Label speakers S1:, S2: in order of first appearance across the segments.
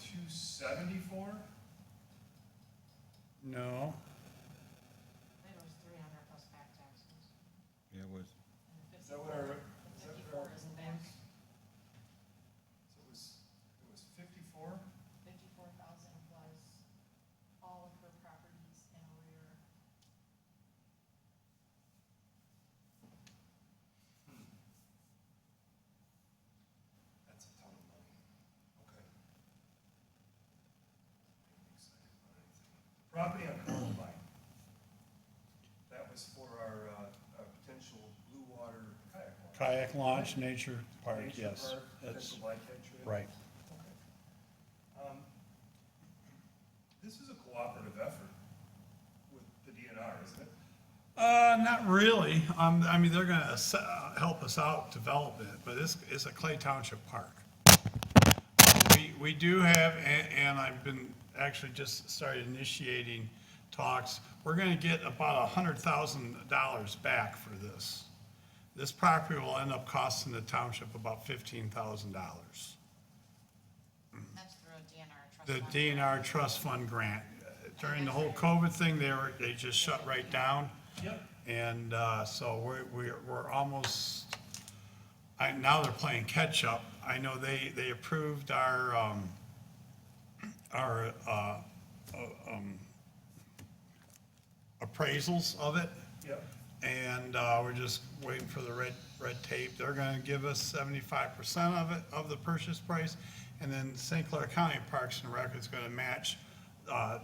S1: two seventy-four?
S2: No,
S3: think it was three hundred plus back taxes.
S4: Yeah, it was.
S3: and the
S1: Is that what our, is that what our?
S3: Fifty-four isn't back,
S1: So it was, it was fifty-four?
S3: fifty-four thousand plus all of her properties in arrear.
S1: That's a ton of money. Okay. Ain't excited about anything. Property on Columbine. That was for our, uh, our potential blue water kayak launch.
S2: kayak launch, nature park,
S1: Nature
S2: yes.
S1: park,
S2: That's
S1: Potential bike entry.
S2: right.
S1: Okay. Um, This is a cooperative effort with the DNR, isn't it?
S2: Uh, not really. Um, I mean, they're gonna ass- uh, help us out develop it, but it's, it's a Clay Township park. We, we do have, and, and I've been actually just started initiating talks. We're gonna get about a hundred thousand dollars back for this. This property will end up costing the township about fifteen thousand dollars.
S3: That's through a DNR trust.
S2: the
S3: fund.
S2: DNR trust fund grant. During the whole COVID thing, they were, they just shut right down.
S1: Yep.
S2: And uh, so we're, we're, we're almost, I, now they're playing catch-up. I know they, they approved our, um, our, uh, uh, um, appraisals of it.
S1: Yep.
S2: And, uh, we're just waiting for the red, red tape. They're gonna give us seventy-five percent of it, of the purchase price. And then St. Clair County Parks and Rec is gonna match, uh,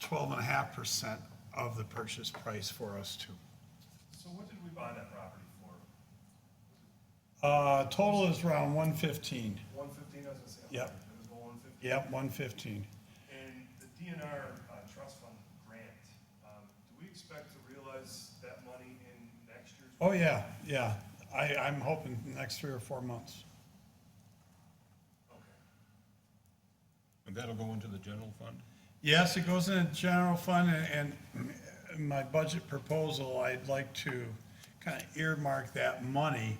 S2: twelve and a half percent of the purchase price for us too.
S1: So what did we buy that property for?
S2: Uh, total is around one fifteen.
S1: One fifteen, I was gonna say.
S2: Yep.
S1: It was one fifteen.
S2: Yep, one fifteen.
S1: And the DNR uh, trust fund grant, um, do we expect to realize that money in next year's?
S2: Oh, yeah, yeah. I, I'm hoping the next three or four months.
S1: Okay.
S4: And that'll go into the general fund?
S2: Yes, it goes in the general fund and, and my budget proposal, I'd like to kind of earmark that money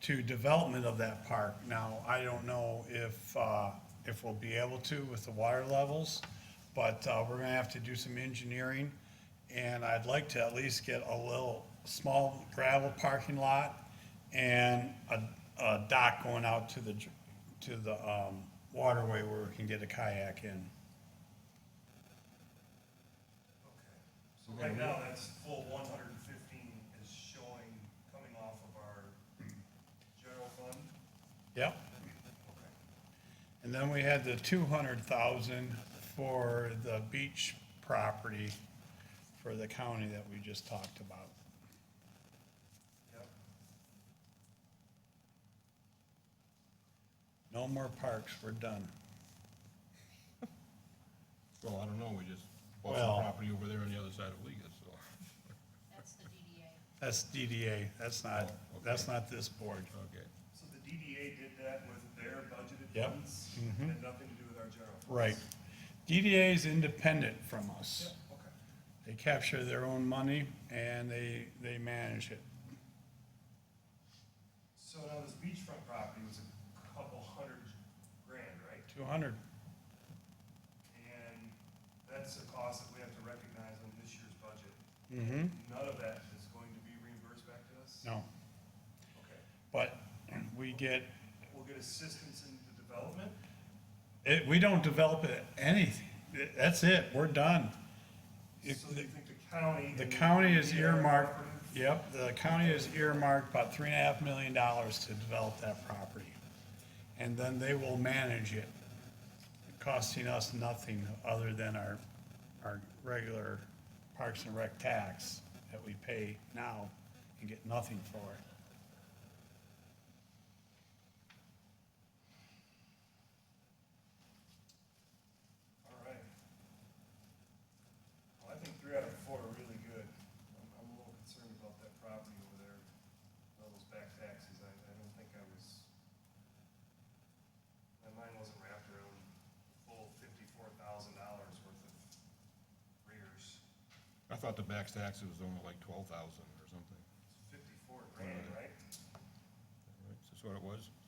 S2: to development of that park. Now, I don't know if, uh, if we'll be able to with the water levels, but, uh, we're gonna have to do some engineering. And I'd like to at least get a little small gravel parking lot and a, a dock going out to the, dr- to the, um, waterway where we can get a kayak in.
S1: Okay. So right now, that's full one hundred and fifteen is showing, coming off of our general fund?
S2: Yep.
S1: Okay.
S2: And then we had the two hundred thousand for the beach property for the county that we just talked about.
S1: Yep.
S2: No more parks, we're done.
S4: Well, I don't know, we just bought some
S2: Well-
S4: property over there on the other side of Liga, so,
S3: That's the DDA.
S2: That's DDA, that's not,
S4: Oh, okay.
S2: that's not this board.
S4: okay.
S1: So the DDA did that with their budgeted
S2: Yep. Mm-hmm.
S1: funds? It Had nothing to do with our general? funds?
S2: Right. DDA is independent from us.
S1: Yep, okay.
S2: They capture their own money and they, they manage it.
S1: So now this beachfront property was a couple hundred grand, right?
S2: Two hundred,
S1: And that's a cost that we have to recognize on this year's budget. Mm-hmm. None of that is going to be reimbursed back to us?
S2: no.
S1: Okay.
S2: But we get,
S1: We'll get assistance in the development?
S2: it, we don't develop it, anything. That's it, we're done. If-
S1: So you think the county?
S2: The
S1: and
S2: county is
S1: the
S2: earmarked,
S1: cooperative-
S2: yep, the county is earmarked about three and a half million dollars to develop that property. And then they will manage it, costing us nothing other than our, our regular Parks and Rec tax that we pay now and get nothing for it.
S1: All right. Well, I think three out of four are really good. I'm, I'm a little concerned about that property over there, all those back taxes. I, I don't think I was, my mind wasn't wrapped around the full fifty-four thousand dollars worth of rears.
S4: I thought the back tax was only like twelve thousand or something.
S1: Fifty-four grand, right?
S4: Right, Is this what it was?